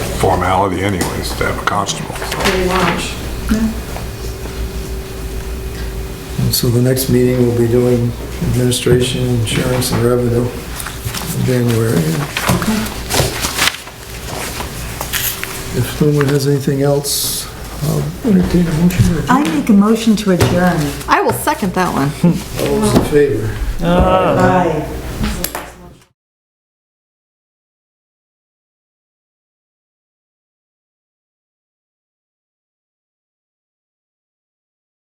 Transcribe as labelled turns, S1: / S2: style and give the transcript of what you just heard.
S1: formality anyways to have a constable.
S2: pretty much.
S3: So the next meeting we will be doing administration, insurance, and revenue in January. If no one has anything else, I'll entertain a motion. to adjourn.
S4: I make a motion to adjourn.
S5: I will second that one.
S3: All those in favor?
S2: Bye.